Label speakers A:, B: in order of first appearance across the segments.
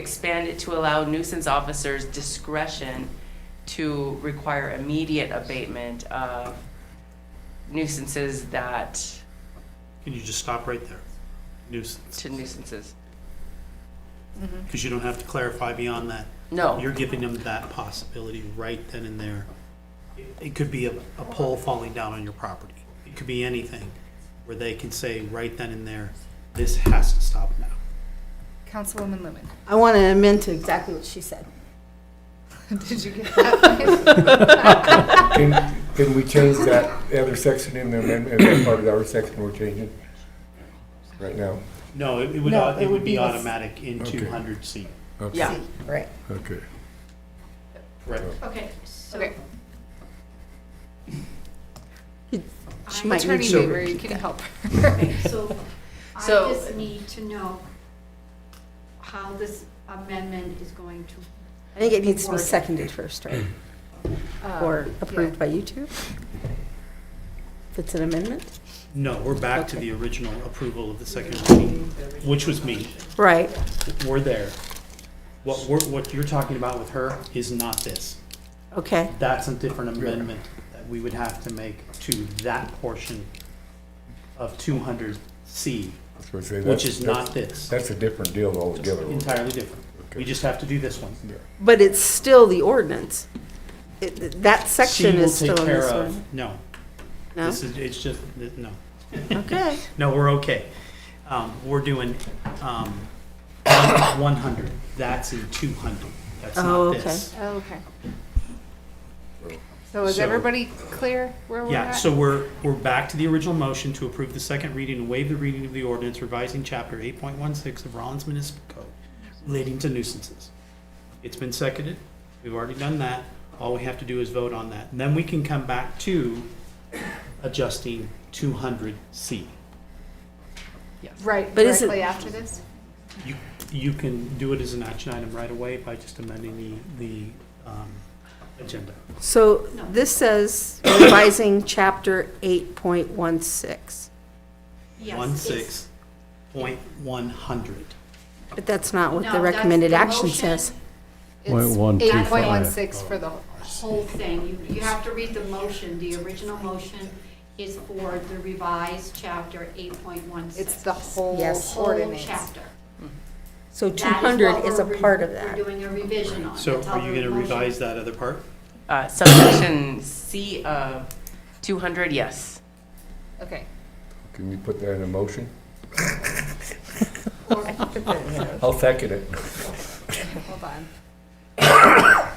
A: expand it to allow nuisance officers discretion to require immediate abatement of nuisances that,
B: Can you just stop right there? Nuisance,
A: to nuisances.
B: because you don't have to clarify beyond that.
A: No,
B: You're giving them that possibility right then and there. It could be a, a pole falling down on your property. It could be anything where they can say right then and there, this has to stop now.
C: Councilwoman Lumen.
D: I want to amend to exactly what she said.
C: Did you get that?
E: Can, can we change that, the other section in the amendment, that part of our section we're changing right now?
B: No, it it would,
D: No,
B: au- it would be
D: the-
B: automatic in
E: Okay.
B: 200C.
A: yeah.
D: Right.
E: Okay.
B: Correct.
F: Okay, so
C: Okay.
D: She might need
C: Attorney
D: to
C: Weaver, you
D: repeat
C: can
D: that.
C: help.
F: So I
A: So-
F: just need to know how this amendment is going to,
D: I think it needs to be seconded first, right?
C: Uh,
D: Or approved by you two? If it's an amendment?
B: No, we're back to the original approval of the second reading, which was me.
D: Right.
B: We're there. What we're, what you're talking about with her is not this.
D: Okay.
B: That's a different amendment that we would have to make to that portion of two hundred C,
E: That's what I say,
B: which
E: that's-
B: is
E: that's-
B: not this.
E: That's a different deal altogether.
B: Entirely different. We just have to do this one.
D: But it's still the ordinance. It- That
B: She
D: section
B: will
D: is still
B: take
D: in
B: care
D: this one.
B: of. No,
D: No?
B: this is, it's just, no.
D: Okay.
B: No, we're okay. Um, we're doing, um, one hundred. That's in two hundred. That's
D: Oh,
B: not
D: okay.
B: this.
C: Okay. So is
B: So-
C: everybody clear where we're
B: Yeah,
C: at?
B: so we're, we're back to the original motion to approve the second reading and waive the reading of the ordinance revising chapter eight point one six of Rollins Municipal Code relating to nuisances. It's been seconded. We've already done that. All we have to do is vote on that. And then we can come back to adjusting two hundred C.
C: Right,
D: But is it-
C: directly after this?
B: You, you can do it as an action item right away by just amending the, the, um, agenda.
D: So this says revising chapter 8.16,
F: yes.
B: One
F: it's-
B: six point one hundred.
D: but that's not what
F: No,
D: the
F: that's
D: recommended
F: the
D: action
F: motion,
D: says.
G: Point one two
C: It's
G: five.
C: eight point one six for the,
F: Whole thing, you, you have to read the motion, the original motion is for the revised chapter eight point one six.
C: it's the whole
D: Yes.
C: ordinance.
F: Chapter.
D: So
F: That what
D: 200 is a
F: we're re-
D: part of
F: We're
D: that.
F: doing a revision on.
B: So
F: That's how
B: are you
F: the
B: gonna
F: motion-
B: revise that other part?
A: Uh, subsection C of two hundred, yes.
C: Okay.
E: Can you put that in a motion?
F: Or-
E: I'll second it.
C: Hold on.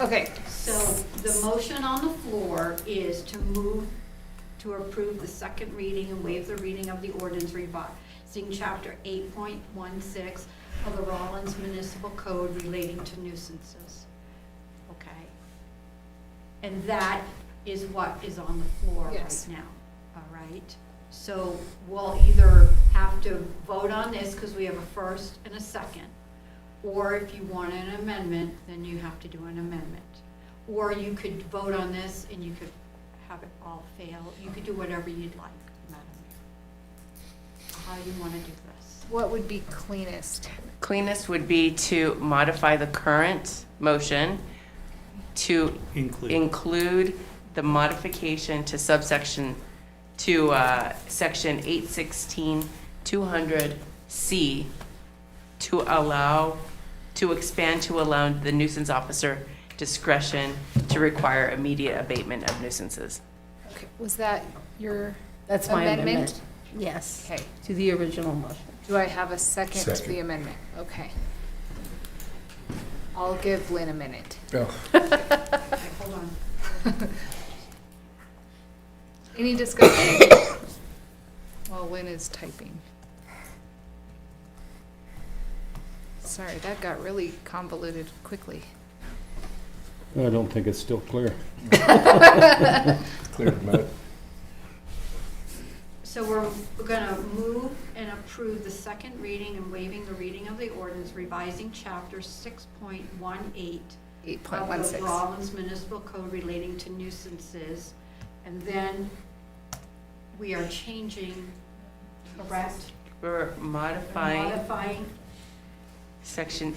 C: Okay,
F: So the motion on the floor is to move to approve the second reading and waive the reading of the ordinance revising chapter 8.16 of the Rollins Municipal Code relating to nuisances. Okay? And that is what is on the floor right
C: Yes.
F: now, all right? So we'll either have to vote on this because we have a first and a second. Or if you want an amendment, then you have to do an amendment. Or you could vote on this and you could have it all fail. You could do whatever you'd like, Madam Mayor. How you want to do this.
C: what would be cleanest?
A: Cleanest would be to modify the current motion to
B: Include.
A: include the modification to subsection, to uh, section 816-200C to allow, to expand to allow the nuisance officer discretion to require immediate abatement of nuisances.
C: Okay, Was that your
D: That's my
C: amendment?
D: amendment. Yes,
C: Okay,
D: to the original motion.
C: do I have a second to the
E: Second.
C: amendment? Okay. I'll give Lynn a minute.
E: Oh,
F: Okay, Hold on.
C: Any discussion? While Lynn is typing. Sorry, that got really convoluted quickly.
G: I don't think it's still clear.
E: Clear as mud.
F: So we're, we're gonna move and approve the second reading and waiving the reading of the ordinance revising chapter six point one eight
C: Eight point one
F: of the
C: six.
F: Rollins Municipal Code relating to nuisances. And then we are changing, correct?
A: We're modifying
F: Modifying
A: Section